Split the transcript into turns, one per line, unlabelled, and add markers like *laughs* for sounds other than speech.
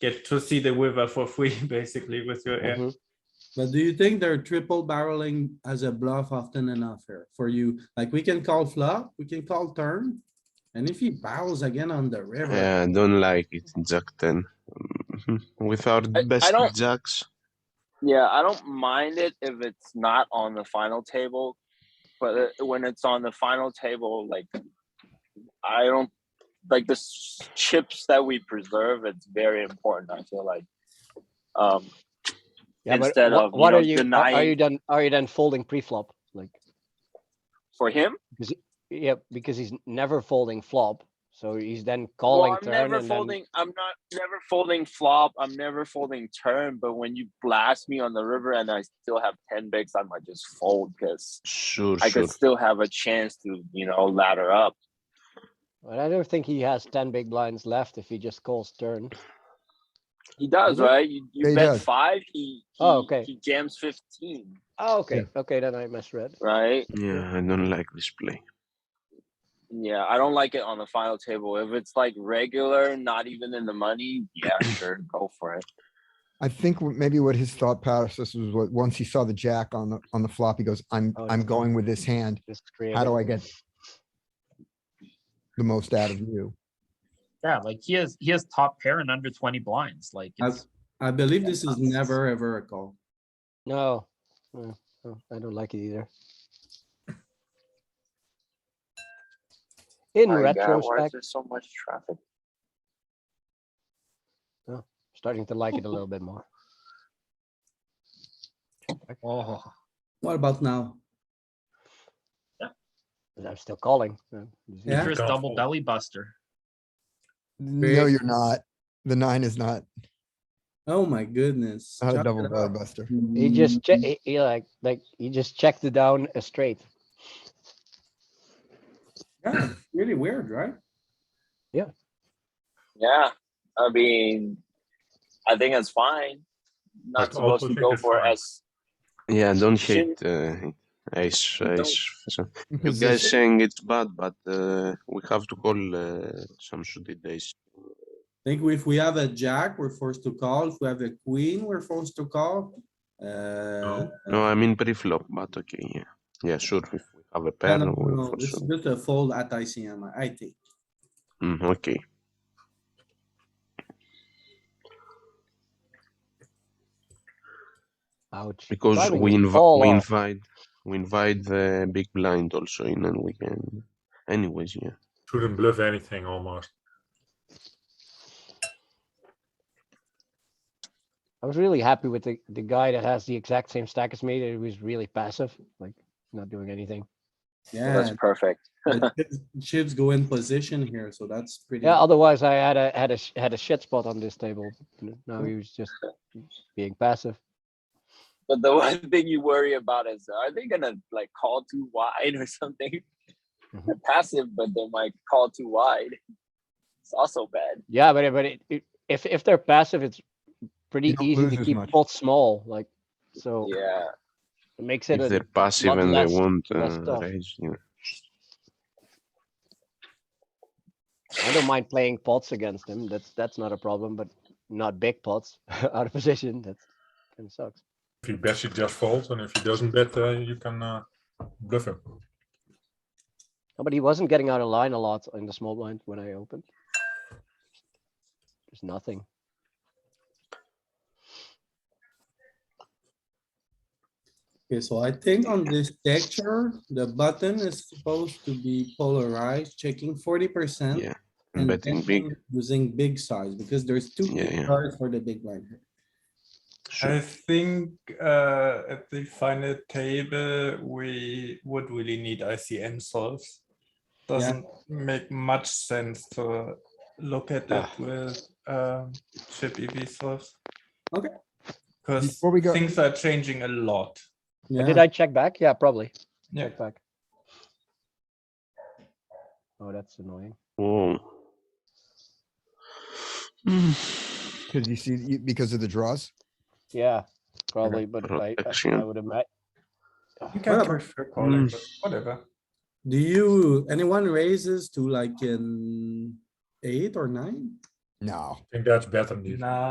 get to see the river for free, *laughs* basically, with your air.
Mhm.
But do you think they're triple barreling as a bluff often enough here for you? Like, we can call flop, we can call turn. And if he barrels again on the river,
Yeah, I don't like it, Jack 10. Mhm. With our
I
best
don't-
jacks.
Yeah, I don't mind it if it's not on the final table, but uh, when it's on the final table, like I don't like the s- chips that we preserve. It's very important. I feel like um,
Yeah, but
Instead
wha-
of, you
what
know,
are you are- Are
denying-
you done? Are you done folding pre-flop? Like,
for him,
yeah, because he's never folding flop, so he's then
well,
calling
I'm
turn
never
and then.
folding. I'm not never folding flop. I'm never folding turn. But when you blast me on the river and I still have ten bigs, I might just fold because
Sure,
I
sure.
could still have a chance to you know ladder up.
But I don't think he has ten big blinds left if he just calls turn.
He does, right? You,
Yeah,
you
he
bet
does.
five. He, he
Oh, okay.
He jams fifteen,
Oh, okay, okay, then I misread.
right?
Yeah, I don't like this play.
Yeah, I don't like it on the final table. If it's like regular, not even in the money, yeah, *laughs* sure, go for it.
I think what- maybe what his thought process was, what, once he saw the jack on the, on the flop, he goes, I'm,
Oh,
I'm
yeah.
going with this hand.
Just
How
creative.
do I get the most out of you?
Yeah, like he has he has top pair and under twenty blinds. Like
I-
it's,
I believe this is never ever a call.
No, no, no, I don't like it either. In
My God, why is
retrospect,
there so much traffic?
starting to like it a little bit more.
oh,
What about now?
'cause I'm still calling. so it's
Yeah.
Chris
Go
double
for it.
belly buster.
No, you're not. The nine is not,
Oh my goodness.
not a
Chop
double
it
barrel
up. Hmm.
buster.
He just che- he- he like like he just checked it down uh, straight.
Yeah, Really weird, right?
Yeah, I mean, I think it's fine. Not
But
supposed
also
to
think
go
it's
for
fine.
as
Yeah, I don't
Shouldn't-
hate uh, ace,
Don't-
ace. So you
In position.
guys saying it's bad, but uh, we have to call uh, some suited ace.
Think if we have a jack, we're forced to call. If we have a queen, we're forced to call. Uh.
No, I mean pre-flop, but okay, yeah. Yeah, sure, if we have a
I
pair,
don't
we
know,
for
This is
sure.
just a fold at ICM, I think.
Mm, okay.
Ouch.
Because
Why would
we,
you
inv-
call
we
off?
invite we invite the big blind also in and we can anyways, yeah.
Shouldn't bluff anything almost.
I was really happy with the the guy that has the exact same stack as me. That he was really passive, like not doing anything.
Yeah,
that's perfect.
*laughs*
but chips- chips go in position here, so that's pretty.
Yeah. Otherwise, I had a had a sh- had a shit spot on this table. N- No, he was just being passive.
But the *laughs* one thing you worry about is are they gonna like call too wide *laughs* or something?
Mm-hmm.
They're passive, but they might call too wide. It's also bad.
Yeah, but it- but it, it, if if they're passive, it's pretty
don't
easy
lose
to
as
keep
much.
pots small. Like so,
Yeah.
it makes it
If
a,
they're passive
lot
and
less-
they want
less
uh,
tough.
raise, yeah.
I don't mind playing pots against him. That's that's not a problem, but not big pots *laughs* out of position. That's kind of sucks.
If he bets, he just folds, and if he doesn't bet, uh, you can uh, bluff him.
No, But he wasn't getting out of line a lot in the small blind when I opened. There's nothing.
Okay, so I think on this texture, the button is supposed to be polarized, checking forty percent.
Yeah, Betting big,
Using big size, because there's two
Yeah,
big
yeah.
cards for the big blind. here.
I think uh, at the final table, we would really need ICM solves. Doesn't make much sense to look at it with um, chip EV solves.
Okay.
Because
Before we go-
things are changing a lot.
Yeah,
Did I check back? Yeah, probably.
Yeah.
Check back. Oh, that's annoying.
whoa.
*laughs* Cause you see, you- because of the draws.
Yeah, probably, but I, I,
protection.
I would imagine.
You can
Whatever.
prefer calling, but whatever.
do you, anyone raises to like an eight or nine?
No.
I think that's better than these.
Nah,